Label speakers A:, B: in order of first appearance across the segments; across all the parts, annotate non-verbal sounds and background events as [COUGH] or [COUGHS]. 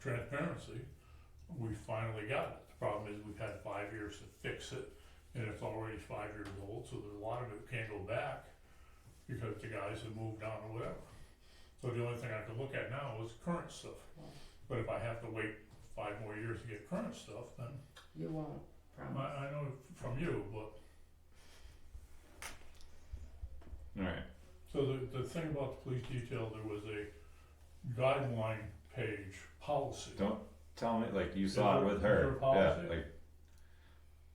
A: transparency, we finally got it. The problem is we've had five years to fix it and it's already five years old, so there's a lot of it can't go back because the guys have moved on or whatever. So the only thing I can look at now is current stuff. But if I have to wait five more years to get current stuff, then
B: You won't,
A: I,
B: promise.
A: I know from you, but
C: Alright,
A: So the, the thing about the police detail, there was a guideline page policy.
C: Don't- tell me, like, you
A: Is
C: saw it
A: there-
C: with
A: is there
C: her,
A: a
C: yeah,
A: policy?
C: like,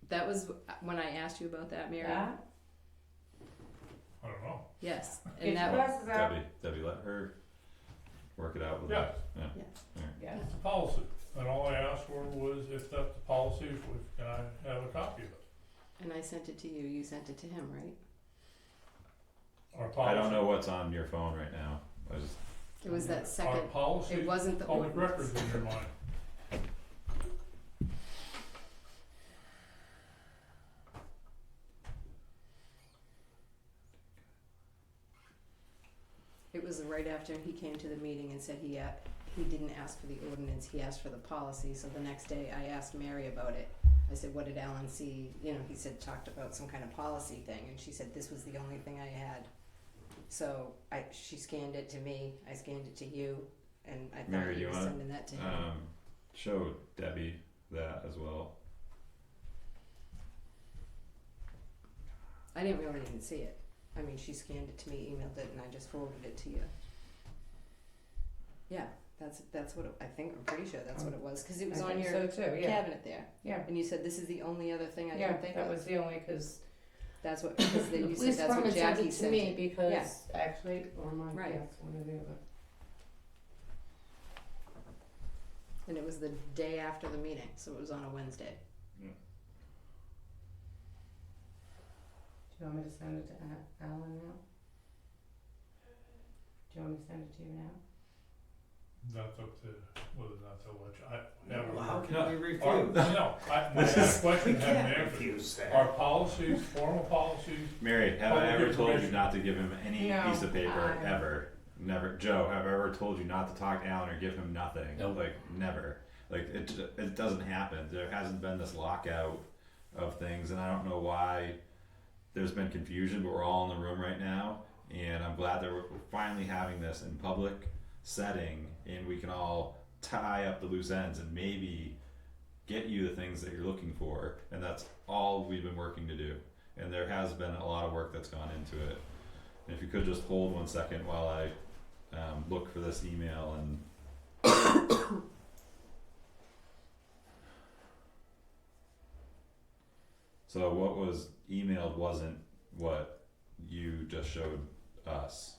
D: That was when I asked you about that, Mary.
B: Yeah,
A: I don't know.
D: Yes,
B: Get
D: and that
B: your
D: was,
B: glasses out.
C: Debbie, Debbie, let her work it out with
A: Yeah,
C: us.
B: Yeah,
A: it's a policy. And all I asked for was if that's the policy, if we, can I have a copy of it?
D: and I sent it to you. You sent it to him, right?
A: Our
C: I
A: policy.
C: don't know what's on your phone right now, I was,
D: It was that
A: Our
D: second. It
A: policy,
D: wasn't the
A: public
D: ordinance.
A: records in your mind.
D: It was right after he came to the meeting and said he a he didn't ask for the ordinance. He asked for the policy. So the next day, I asked Mary about it. I said, "What did Alan see?" You know, he said talked about some kind of policy thing, and she said this was the only thing I had. So I she scanned it to me. I scanned it to you, and I thought
C: Mary,
D: he
C: you
D: was
C: wanna-
D: sending that to him.
C: um, show Debbie that as well.
D: I didn't really even see it. I mean, she scanned it to me, emailed it, and I just forwarded it to you. Yeah, that's that's what it, I think. I'm pretty sure that's what it was because it
B: I
D: was on
B: think
D: your
B: so too, yeah,
D: cabinet there.
B: Yeah.
D: And you said this is the only other thing I
B: yeah,
D: can think
B: that
D: of.
B: was the only, [LAUGHS] cause
D: that's what because then
B: the [LAUGHS]
D: you said
B: police
D: that's what
B: department sent
D: Jackie
B: it to
D: sent.
B: me
D: it.
B: because actually, or my,
D: Right.
B: yes, one or the other.
D: And it was the day after the meeting, so it was on a Wednesday.
B: Do you want me to send it to A- Alan now? Do you want me to send it to you now?
A: That's up to whether or not to let you, I
E: Yeah,
A: have
E: well, how
A: a.
E: can we
A: Our,
E: refute?
A: no, I, my question
E: We
A: had an
E: can't
A: answer.
E: refuse
A: Our
E: that.
A: policies, formal policies,
C: Mary, have I
A: Public
C: ever told you
A: information.
C: not to give him any
B: No,
C: piece of paper,
B: I-
C: ever? Never, Joe, have I ever told you not to talk to Alan or give him nothing?
E: Nope.
C: Like, never, like, it, it doesn't happen, there hasn't been this lockout of things, and I don't know why there's been confusion, but we're all in the room right now, and I'm glad that we're finally having this in public setting, and we can all tie up the loose ends and maybe get you the things that you're looking for, and that's all we've been working to do and there has been a lot of work that's gone into it. And if you could just hold one second while I um, look for this email and. [COUGHS] so what was emailed wasn't what you just showed us,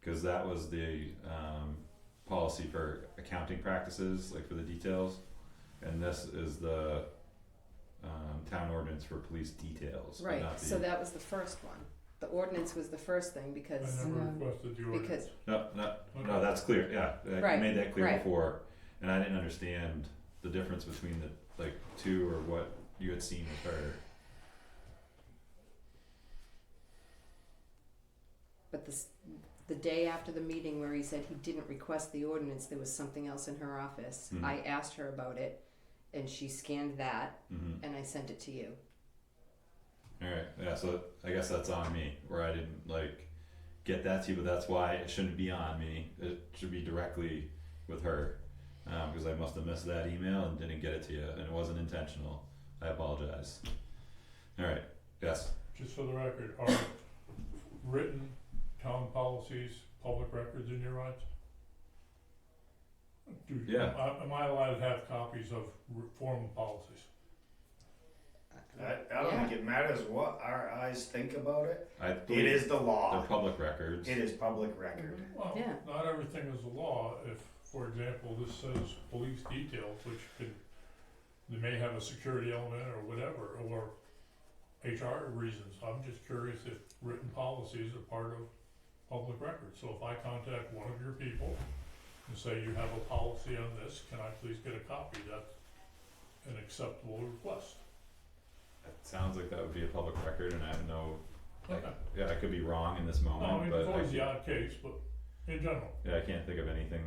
C: because that was the um, policy for accounting practices, like for the details, and this is the. Um, town ordinance for police details, but
D: Right.
C: not the-
D: So that was the first one. The ordinance was the first thing
A: I
D: because
A: never
B: Um,
A: requested the
D: because
A: ordinance.
C: No, no,
A: Okay.
C: no, that's clear, yeah, I
D: Right,
C: made that clear
D: right.
C: before, and I didn't understand the difference between the, like, two or what you had seen with her.
D: But this, the day after the meeting where he said he didn't request the ordinance, there was something else in her office.
C: Mhm.
D: I asked her about it, and she scanned that,
C: Mhm.
D: and I sent it to you.
C: Alright, yeah, so I guess that's on me, where I didn't, like, get that to you, but that's why it shouldn't be on me, it should be directly with her. Um, cause I must have missed that email and didn't get it to you, and it wasn't intentional, I apologize. Alright, yes,
A: just for the record, are written town policies, public records in your rights? Do,
C: Yeah.
A: am I- am I allowed to have copies of r- formal policies?
E: I, I don't think it matters what our eyes think about it.
C: I
E: It
C: believe
E: is the
C: they're
E: law.
C: public records,
E: It is public record.
A: Well,
D: Yeah.
A: not everything is the law, if, for example, this says police detail, which could, they may have a security element or whatever, or HR reasons, I'm just curious if written policies are part of public records, so if I contact one of your people and say you have a policy on this, can I please get a copy, that's an acceptable request.
C: It sounds like that would be a public record, and I have no Like,
A: Okay.
C: yeah, I could be wrong in this
A: No, Oh, I
C: moment,
A: mean,
C: but
A: it's
C: I,
A: always the
C: can't-
A: odd case, but in general.
C: yeah, I can't think of anything